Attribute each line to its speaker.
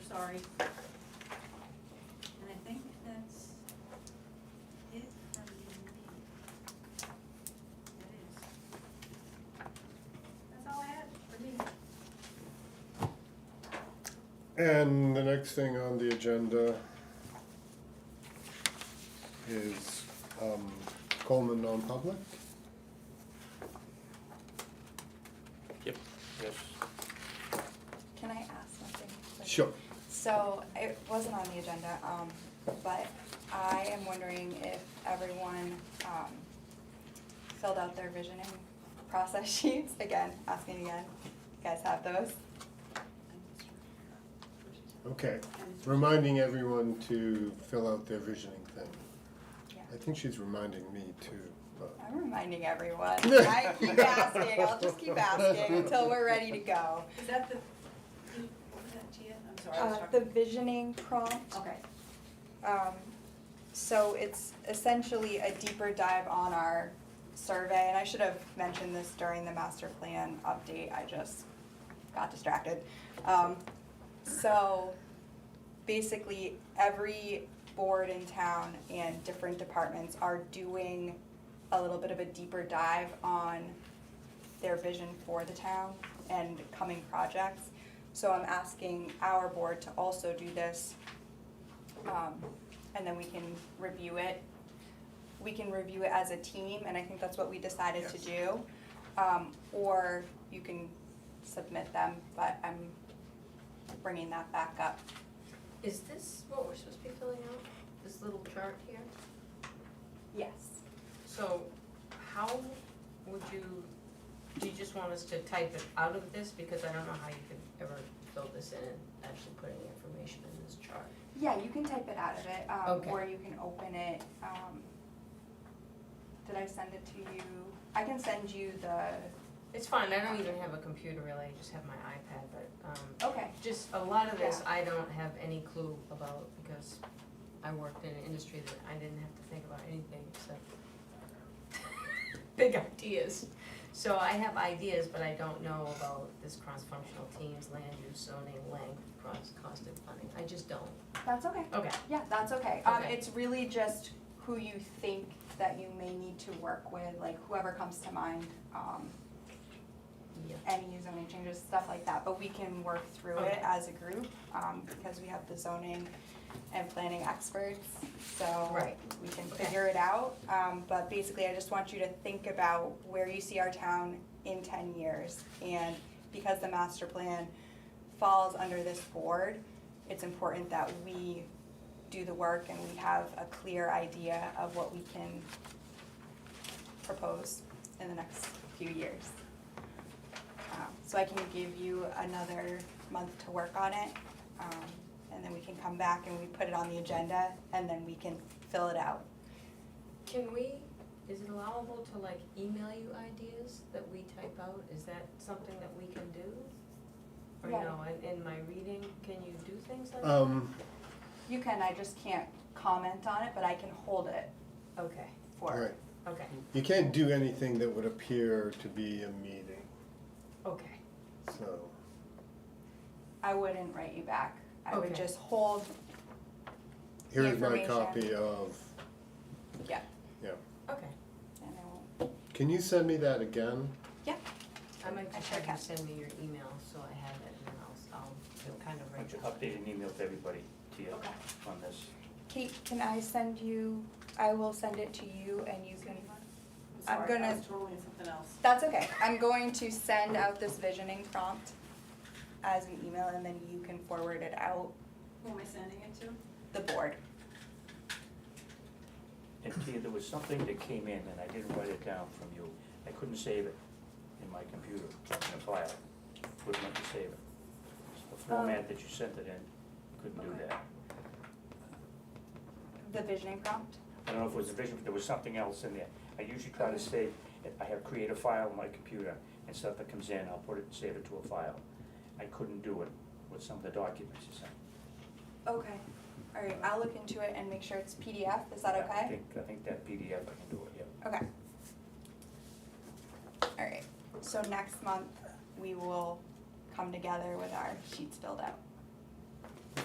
Speaker 1: sorry. And I think that's it from me. That is. That's all I had for me.
Speaker 2: And the next thing on the agenda is um, Coleman non-public.
Speaker 3: Yep, yes.
Speaker 4: Can I ask something? quick?
Speaker 2: Sure.
Speaker 4: So, it wasn't on the agenda, um, but I am wondering if everyone, um, filled out their visioning process sheets, again, asking again, you guys have those?
Speaker 2: Okay, reminding everyone to fill out their visioning thing.
Speaker 4: Yeah.
Speaker 2: I think she's reminding me too, but.
Speaker 4: I'm reminding everyone, I keep asking, I'll just keep asking until we're ready to go.
Speaker 1: Is that the, what was that, Tia? I'm sorry, I was
Speaker 4: Uh,
Speaker 1: talking.
Speaker 4: the visioning prompt.
Speaker 1: Okay.
Speaker 4: Um, so it's essentially a deeper dive on our survey, and I should have mentioned this during the master plan update, I just got distracted. Um, so basically, every board in town and different departments are doing a little bit of a deeper dive on their vision for the town and coming projects. So I'm asking our board to also do this um, and then we can review it. We can review it as a team, and I think that's what we decided to do. Um, or you can submit them, but I'm bringing that back up.
Speaker 5: Is this what we're supposed to be filling out, this little chart here?
Speaker 4: Yes.
Speaker 5: So how would you, do you just want us to type it out of this, because I don't know how you could ever fill this in and actually put any information in this chart?
Speaker 4: Yeah, you can type it out of it, um,
Speaker 5: Okay.
Speaker 4: or you can open it, um, did I send it to you? I can send you the,
Speaker 5: It's fine, I don't even have a computer really, I just have my iPad, but, um,
Speaker 4: okay,
Speaker 5: just a lot of this I don't have any clue about, because I worked in an industry that I didn't have to think about anything except big ideas. So I have ideas, but I don't know about this cross-functional teams, land use, zoning, length, cross, cost of funding, I just don't.
Speaker 4: that's okay.
Speaker 5: Okay,
Speaker 4: Yeah, that's okay. Um,
Speaker 5: Okay.
Speaker 4: it's really just who you think that you may need to work with, like whoever comes to mind, um,
Speaker 5: yeah,
Speaker 4: any zoning changes, stuff like that, but we can work through it
Speaker 5: Okay.
Speaker 4: as a group, um, because we have the zoning and planning experts, so
Speaker 5: Right.
Speaker 4: we can
Speaker 5: Okay.
Speaker 4: figure it out. Um, but basically, I just want you to think about where you see our town in ten years, and because the master plan falls under this board, it's important that we do the work and we have a clear idea of what we can propose in the next few years. Um, So I can give you another month to work on it, um, and then we can come back and we put it on the agenda, and then we can fill it out.
Speaker 5: can we, is it allowable to like email you ideas that we type out, is that something that we can do? Or
Speaker 4: Yeah.
Speaker 5: no, in, in my reading, can you do things like that?
Speaker 2: Um,
Speaker 4: You can, I just can't comment on it, but I can hold it
Speaker 5: Okay,
Speaker 2: all
Speaker 4: for,
Speaker 2: right,
Speaker 5: okay,
Speaker 2: you can't do anything that would appear to be a meeting,
Speaker 5: okay,
Speaker 2: so,
Speaker 4: I wouldn't write you back. I would
Speaker 5: Okay.
Speaker 4: just hold,
Speaker 2: here is my
Speaker 4: Information.
Speaker 2: copy of,
Speaker 5: okay.
Speaker 4: and I won't,
Speaker 2: can you send me that again?
Speaker 5: I might
Speaker 4: I
Speaker 5: just
Speaker 4: sure
Speaker 5: have
Speaker 4: can.
Speaker 5: you send me your email, so I have it, and then I'll, I'll feel kind of
Speaker 3: I
Speaker 5: right.
Speaker 3: just updated an email to everybody, to you,
Speaker 4: okay.
Speaker 3: on this.
Speaker 4: Kate, can I send you, I will send it to you and you can, I'm
Speaker 1: Sorry, I
Speaker 4: gonna-
Speaker 1: was totally in something else.
Speaker 4: that's okay. I'm going to send out this visioning prompt as an email and then you can forward it out,
Speaker 1: Who am I sending it to?
Speaker 4: the board.
Speaker 3: And Tia, there was something that came in, and I didn't write it down from you. I couldn't save it in my computer, in a file. Wouldn't let me save it. The format that you sent it in, couldn't do
Speaker 4: Um, Okay.
Speaker 3: that.
Speaker 4: The visioning prompt?
Speaker 3: I don't know if it was a vision, but there was something else in there. I usually try to save, I have, create a file on my computer, and stuff that comes in, I'll put it, save it to a file. I couldn't do it with some of the documents you sent.
Speaker 4: Okay, all right, I'll look into it and make sure it's PDF, is that
Speaker 3: Yeah, I
Speaker 4: okay?
Speaker 3: think, I think that PDF, I can do it, yeah.
Speaker 4: Okay. All right, so next month, we will come together with our sheets filled out.